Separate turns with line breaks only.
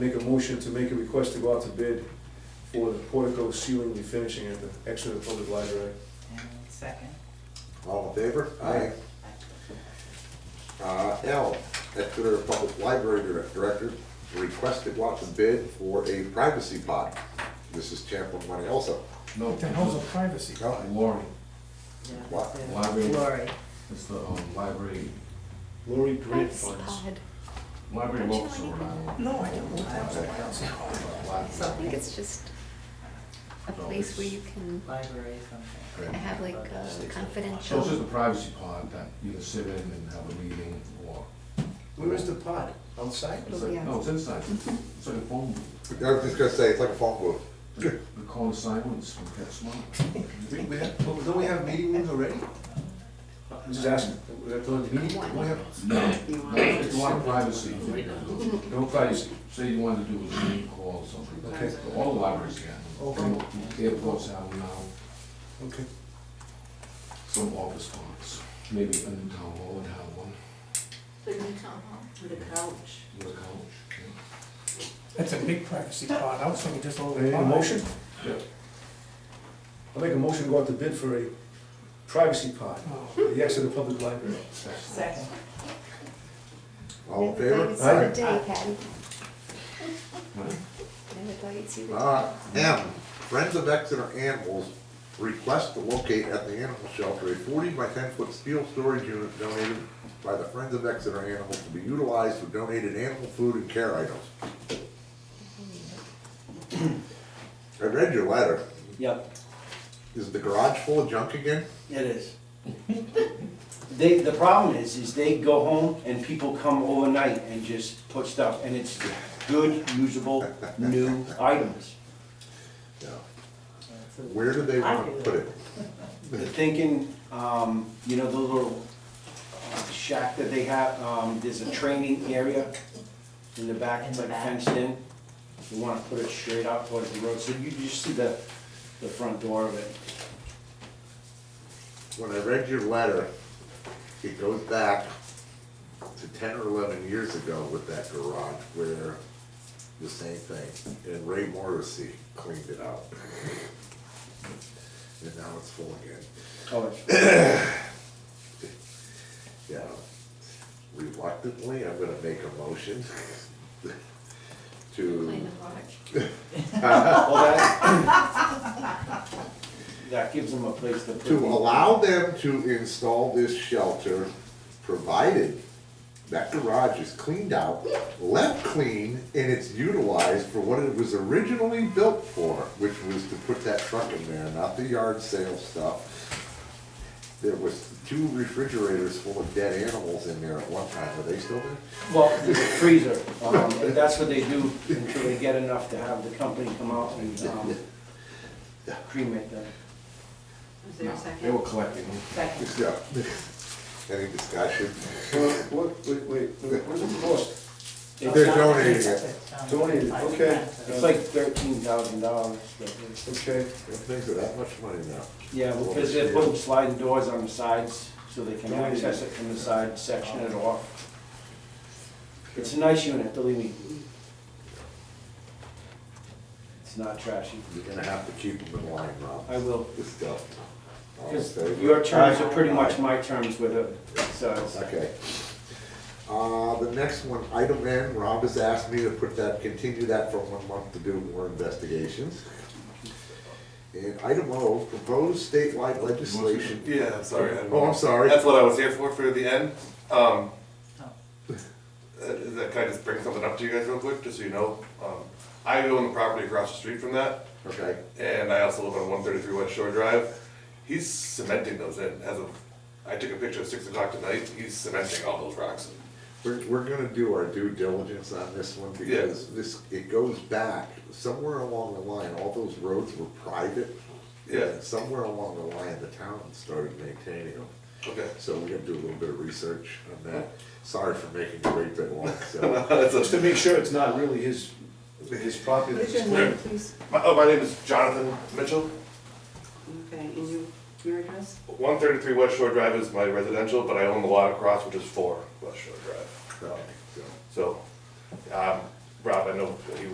Make a motion to make a request to go out to bid for the portico ceiling refinishing at the Exeter Public Library.
And second.
All in favor?
Aye.
Uh, L, Exeter Public Library Dir- Director, requested lots of bid for a privacy pod. This is Champlin Money also.
No,
What the hell's a privacy?
Lori,
Yeah,
What?
that's it.
Library.
Lori.
it's the um, library,
Lori Grant
Privacy
Funds.
pod.
library
Don't you
works
like
or whatever.
No, I don't, I don't, I don't.
So I think it's just a
No,
place where
it's-
you can
Library something.
Right.
have like a
So it's just a
confidential.
privacy pod that you can sit in and have a meeting or,
Where is the pod? Outside?
it's like,
Yeah.
no, it's inside, it's like a phone, booth.
I was just gonna say, it's like a phone booth.
the call of silence from Pet Smart.
We, we have, but Oh, don't we have meeting rooms already?
Just asking, that's all you need?
We have,
No,
You want-
no, it's a lot of privacy. No privacy, say you wanted to do a Zoom call or something,
Okay.
all the libraries can.
Okay.
Airports have now
Okay.
some office parks, maybe a new town hall would have one,
With a couch.
with a couch. yeah.
That's a big privacy pod, I was thinking just a
Any
little pod.
motion?
Yeah.
I'll make a motion to go out to bid for a privacy pod
Oh,
at the Exeter Public Library.
That's-
Second.
All in
Never thought
favor?
you'd see
Aye.
the day, Patty.
Right.
Never thought you'd see the day.
Uh, M, Friends of Exeter Animals request to locate at the animal shelter a forty by ten foot steel storage unit donated by the Friends of Exeter Animals to be utilized for donated animal food and care items. I read your letter.
yep,
Is the garage full of junk again?
it is. They, the problem is, is they go home and people come overnight and just put stuff, and it's good, usable, new items.
Yeah.
That's it.
Where do they want to put it?
They're thinking, um, you know, the little shack that they have, um, there's a training area in the back, it's
In
like
the back.
fenced in. You wanna put it straight out towards the road, so you just see the, the front door of it.
When I read your letter, it goes back to ten or eleven years ago with that garage where the same thing, and Ray Morrissey cleaned it out. And now it's full again.
Oh, it's-
Yeah, reluctantly, I'm gonna make a motion
Kind
to,
of large.
Well, that, that gives them a place to put.
to
the-
allow them to install this shelter, provided that garage is cleaned out, left clean, and it's utilized for what it was originally built for, which was to put that truck in there, not the yard sale stuff. There was two refrigerators full of dead animals in there at one time, are they still there?
Well, the freezer, um, and that's what they do until they get enough to have the company come out and, um, cremate them.
Is there a
They were
second?
collecting them.
Second.
Yeah. Any discussion?
Wait, wait, wait, what is it cost?
They're donating it.
Donated, okay.
It's like thirteen thousand dollars, but, it's-
Okay,
Things are that much money now.
yeah,
Oh,
because they're putting sliding doors on the sides, so they can access it from the side, section it off. It's a nice unit, believe me. It's not trashy.
You're gonna have to keep them in line, Rob.
I will.
This stuff. All in
Because
favor?
your terms are pretty much my terms with it, so it's-
Okay. Uh, the next one, item N, Rob has asked me to put that, continue that for one month to do more investigations. And item O, proposed statewide legislation.
Yeah, I'm sorry. I don't
Oh, I'm
know.
sorry.
That's what I was here for, for the end. Um, uh, is that, can I just bring something up to you guys real quick, just so you know? Um, I own the property across the street from that,
Okay,
and I also live on one thirty-three West Shore Drive. He's cementing those in, as of, I took a picture at six o'clock tonight, he's cementing all those rocks in.
we're, we're gonna do our due diligence on this one because this, it goes back, somewhere along the line, all those roads were private.
Yeah.
And somewhere along the line, the town started maintaining them.
Okay.
So we're gonna do a little bit of research on that. Sorry for making you wait that long, so.
That's
just
a-
to make sure it's not really his, his property.
What's
that's
your
clear.
name, please?
My, oh, my name is Jonathan Mitchell.
Okay, and you, your address?
One thirty-three West Shore Drive is my residential, but I own the lot across, which is four West Shore Drive.
Okay, so.
So, um,
Rob, I know that he